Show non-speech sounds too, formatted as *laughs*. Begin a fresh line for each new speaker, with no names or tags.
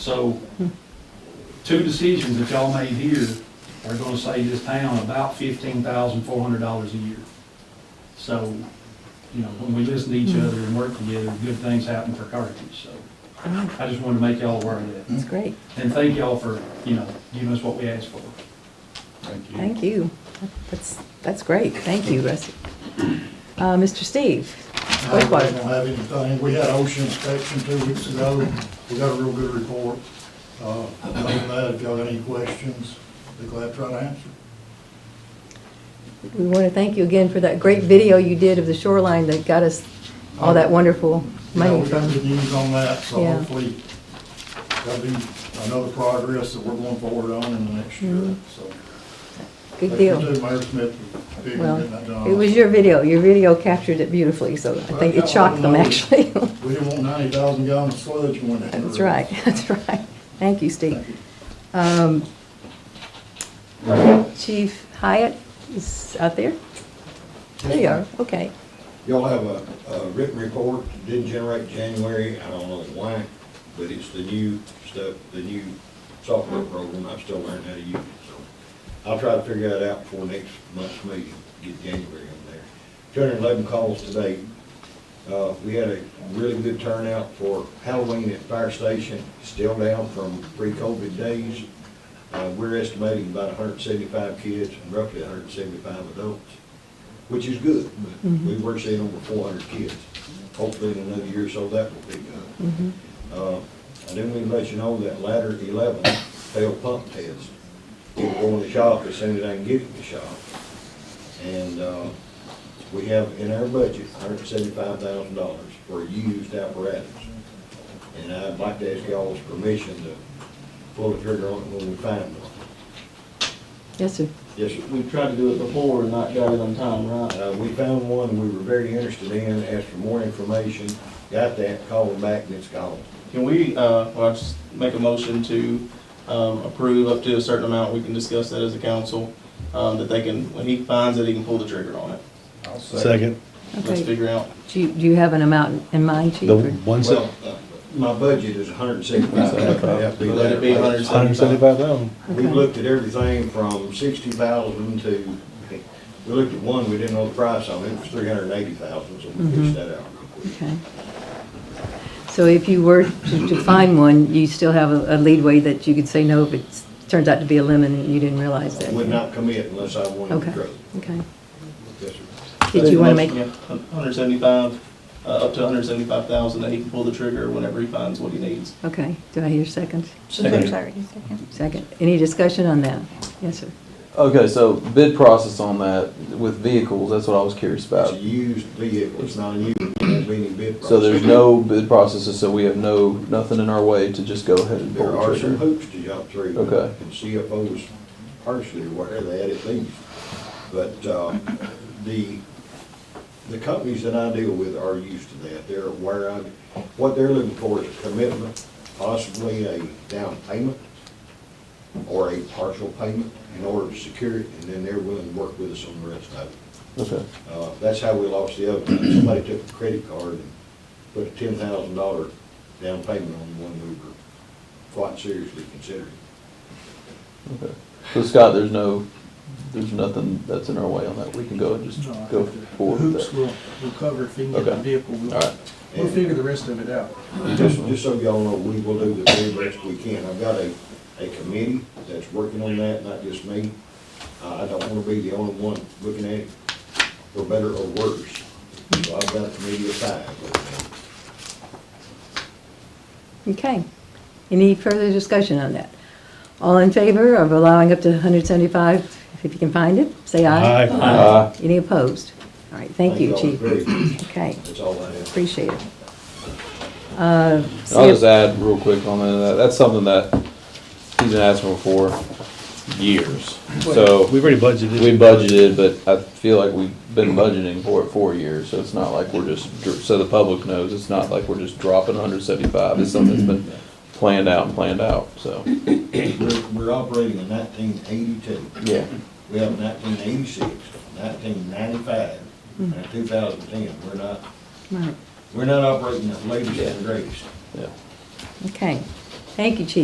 So, two decisions that y'all made here are gonna save this town about fifteen thousand four hundred dollars a year. So, you know, when we listen to each other and work together, good things happen for Carthage, so I just wanted to make y'all aware of that.
Oh, That's great.
And thank y'all for, you know, giving us what we asked for.
Thank you.
Thank you. That's, that's great. Thank you, Rusty. Uh, Mr. Steve,
I really
Wastewater.
don't have anything. We had ocean inspection two weeks ago. We got a real good report. Uh, Other than that, if y'all got any questions, be glad to try to answer.
We want to thank you again for that great video you did of the shoreline that got us all that wonderful
You know, we
money.
got good news on that, so
Yeah.
hopefully that'll be another progress that we're going forward on in the next year, so.
Mm-hmm. Good
Thank
deal.
you, too, Mayor Smith, for being
Well,
in that job.
it was your video. Your video captured it beautifully, so I think it shocked them, actually. *laughs*
We didn't want ninety thousand gallons of sludge going down. the
That's
river.
right, *laughs* that's right. Thank you, Steve.
Thank you.
Um, Chief Hyatt is out there? There you are, okay.
Y'all have a, a written report, didn't generate January, I don't know why, but it's the new stuff, the new software
Mm-hmm.
program, I'm still learning how to use it, so. I'll try to figure that out before next month's meeting, get January on there. Two hundred and eleven calls today. Uh, we had a really good turnout for Halloween at Fire Station, still down from pre-COVID days. Uh, we're estimating about hundred and seventy-five kids and roughly hundred and seventy-five adults which is good, but we were seeing over four hundred kids. Hopefully in another year or so, that will pick up. Uh, I didn't even let you know that ladder eleven failed pump test. It'll go in the shop as soon as I can get it in the shop. And, uh, we have in our budget, hundred and seventy-five thousand dollars for used apparatus. And I'd like to ask y'all's permission to pull the trigger on it when we find one.
Yes, sir.
Yes, sir.
We tried to do it before and not got it on time, right?
Uh, we found one we were very interested in, asked for more information, got that, called them back, and it's gone.
Can we, uh, well, I'll just make a motion to, um, approve up to a certain amount, we can discuss that as a council, um, that they can, when he finds it, he can pull the trigger on it.
I'll say.
Second,
Let's
Okay.
figure out.
Do you, do you have an amount in mind, Chief?
the
or-
one
Well,
seven,
uh, my budget is a hundred and seventy-five thousand.
Let it be
one hundred and seventy-five thousand.
We
Okay.
looked at everything from sixty thousand to, we looked at one, we didn't know the price on it, it was three hundred and eighty thousand, so we
Mhm.
fixed that out real quick.
Okay. So if you were to to find one, you still have a a leadway that you could say no if it turns out to be a lemon and you didn't realize that?
I Would not commit unless I wanted to
Okay,
grow.
okay.
Yes, sir.
Did you want to make,
Hundred seventy-five, uh, up to hundred seventy-five thousand, that he can pull the trigger whenever he finds what he needs.
okay, do I hear a second?
I'm sorry, just a second.
Second. Any discussion on that? Yes, sir.
Okay, so bid process on that with vehicles, that's what I was curious
It's
about.
a used vehicle, it's not a new, one, there's any bid price.
So there's no bid processes, so we have no, nothing in our way to just go ahead and pull
There are
the
some
trigger.
hoops to jump through.
Okay.
And CFOs partially, whatever they had it least. But, uh, the, the companies that I deal with are used to that. They're aware of, it. what they're looking for is a commitment, possibly a down payment or a partial payment in order to secure it, and then they're willing to work with us on the rest of it.
Okay,
Uh, That's how we lost the other one. Somebody took a credit card and put a ten thousand dollar down payment on one we were quite seriously considering.
okay. So Scott, there's no, there's nothing that's in our way on that. We can go and just
No, I
go
think the-
forward
The
with
hoops
that.
will, will cover if he can get the
Okay.
vehicle. We'll-
All right.
We'll figure the rest of it out.
Just, just so y'all know, we will do the very best we can. I've got a, a committee that's working on that, not just me. Uh, I don't wanna be the only one looking at it, for better or worse. So I've got a committee of five looking at it.
Okay. Any further discussion on that? All in favor of allowing up to 175, if you can find it, say aye.
Aye.
Uh,
Any opposed? All right, thank you,
y'all
Chief.
very much.
Okay,
That's all I have.
appreciate it. Uh,
And I'll just
see-
add real quick on that, that's something that he's been asking for years. So
We've already budgeted.
we budgeted, but I feel like we've been budgeting for it for years, so it's not like we're just, dr- so the public knows, it's not like we're just dropping hundred seventy-five, it's something that's been planned out and planned out, so,
We're, we're operating in nineteen eighty-two.
yeah.
We have 1986, 1995, and 2010. We're not,
Right.
we're not operating the latest and greatest.
Yeah.
Okay, Thank you, Chief.